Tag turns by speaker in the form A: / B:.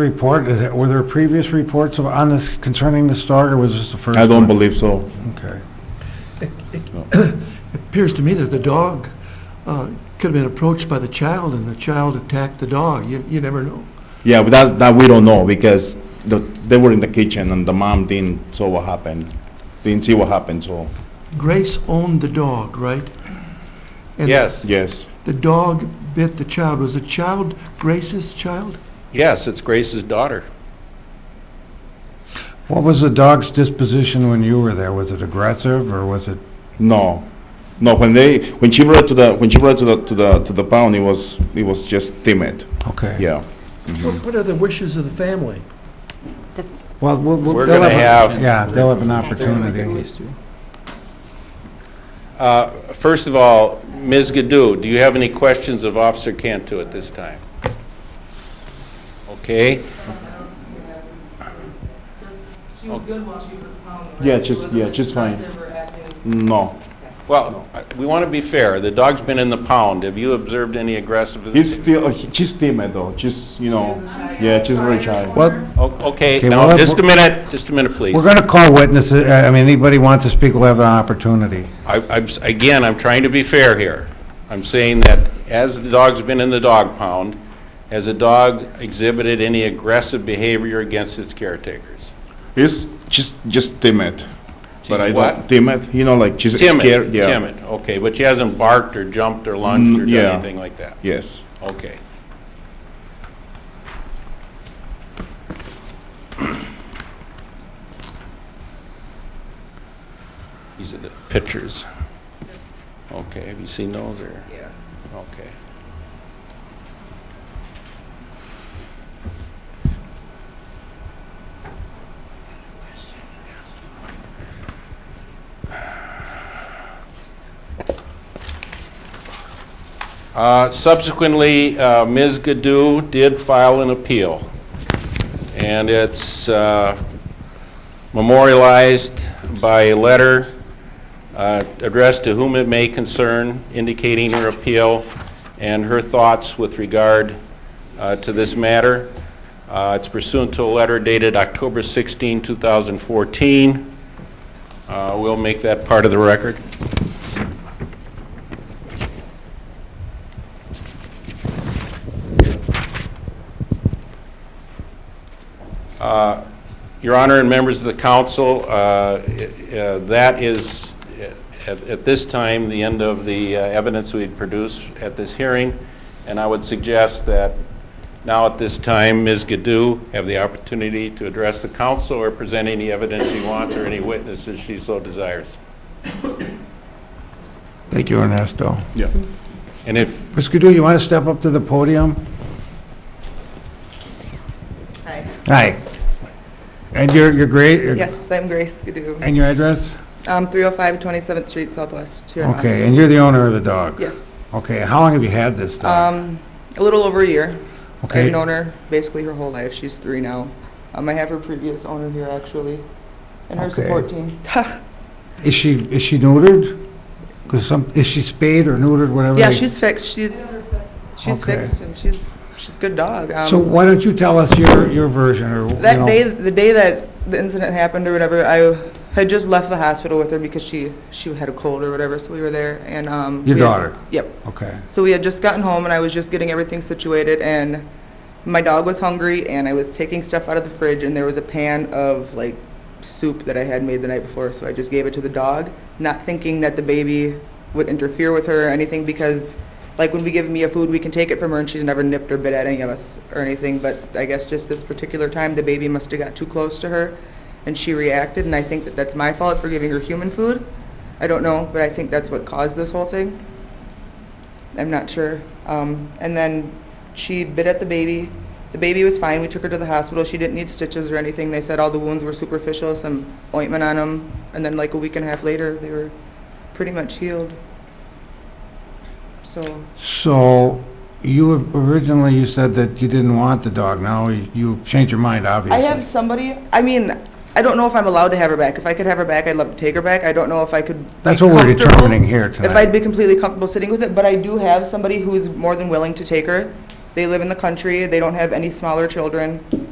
A: Report, is it- were there previous reports of- on this concerning this dog, or was this the first?
B: I
A: one?
B: don't believe so.
A: Okay.
C: Appears to me that the dog uh, could have been approached by the child, and the child attacked the dog. You you never know.
B: Yeah, but that, that we don't know because the, they were in the kitchen and the mom didn't saw what happened. Didn't see what happened, so,
C: Grace owned the dog, right? And
D: Yes,
B: yes.
C: The dog bit the child. Was the child Grace's child?
D: yes, it's Grace's daughter.
A: What was the dog's disposition when you were there? Was it aggressive, or was it,
B: No, no. When they when she brought to the when she brought to the to the to the pound, it was it was just timid.
A: okay.
B: Yeah.
C: What what are the wishes of the family?
A: Well, we'll- we'll-
D: We're
A: they'll
D: gonna
A: a-
D: have-
A: Yeah, they'll have an opportunity.
D: Uh, First of all, Ms. Gaddu, do you have any questions of Officer Cantu at this time? Okay,
E: She was good while she was at the pound. right?
B: Yeah,
E: She
B: just-
E: wasn't
B: yeah, just fine.
E: aggressive or acting-
B: No,
D: well, I- we want to be fair. The dog's been in the pound. Have you observed any aggressive?
B: he's still uh, he- she's timid though. She's you know yeah she's very shy.
A: Well,
D: O- Okay,
A: Okay,
D: now,
A: well,
D: just a minute, just a minute, please.
A: we're going to call witnesses, I I mean, anybody wants to speak will have an opportunity.
D: I- I'm, s- again, I'm trying to be fair here. I'm saying that as the dog's been in the dog pound, has the dog exhibited any aggressive behavior against its caretakers?
B: He's she's just timid.
D: She's
B: I
D: what?
B: Don't, timid. You know like she's
D: Timid,
B: scared. Yeah.
D: timid, okay, but she hasn't barked or jumped or lunged
B: Mm,
D: or
B: yeah.
D: done anything like that?
B: Yes.
D: Okay. These are the pictures. Okay, have you seen those or? Yeah. Okay. Uh, Subsequently, uh, Ms. Gaddu did file an appeal, and it's uh, memorialized by a letter uh, addressed to whom it may concern indicating her appeal and her thoughts with regard uh, to this matter. Uh, It's pursuant to a letter dated October 16, 2014. Uh, We'll make that part of the record. Your Honor and members of the council, uh, i- uh, that is, uh, at at this time, the end of the uh, evidence we'd produced at this hearing, and I would suggest that now at this time, Ms. Gaddu have the opportunity to address the council or present any evidence she wants or any witnesses she so desires.
A: Thank you, Ernesto.
B: Yeah.
D: And if,
A: Ms. Gudu, you want to step up to the podium?
F: Hi.
A: Hi. And your, your grade?
F: Yes, I'm Grace Gaddu.
A: And your address?
F: Um, 305 27th Street Southwest here in
A: Okay,
F: Austin.
A: and you're the owner of the dog?
F: Yes.
A: Okay, how long have you had this dog?
F: Um, a little over a year.
A: Okay.
F: I've known her basically her whole life. She's three now. Um, I have her previous owner here actually, and her
A: Okay.
F: support team.
A: Is she, is she neutered? 'Cause some, is she spayed or neutered, whatever?
F: Yeah,
A: they-
F: she's fixed. She's, she's
A: Okay.
F: fixed and she's, she's a good dog. Um,
A: So why don't you tell us your, your version or, you
F: That
A: know-
F: day, the day that the incident happened or whatever, I had just left the hospital with her because she, she had a cold or whatever, so we were there and, um.
A: Your
F: we had-
A: daughter?
F: Yep.
A: Okay,
F: So we had just gotten home and I was just getting everything situated and my dog was hungry and I was taking stuff out of the fridge and there was a pan of like soup that I had made the night before, so I just gave it to the dog, not thinking that the baby would interfere with her or anything because like when we give Mia food, we can take it from her and she's never nipped or bit at any of us or anything, but I guess just this particular time, the baby must have got too close to her and she reacted and I think that that's my fault for giving her human food. I don't know, but I think that's what caused this whole thing. I'm not sure. Um, and then she bit at the baby. The baby was fine. We took her to the hospital. She didn't need stitches or anything. They said all the wounds were superficial, some ointment on them. And then, like a week and a half later, they were pretty much healed. So,
A: so you originally, you said that you didn't want the dog, now you've changed your mind,
F: I
A: obviously.
F: have somebody, I mean, I don't know if I'm allowed to have her back. If I could have her back, I'd love to take her back. I don't know if I could. be
A: That's what we're
F: comfortable-
A: determining here tonight.
F: If I'd be completely comfortable sitting with it, but I do have somebody who's more than willing to take her. They live in the country, they don't have any smaller children.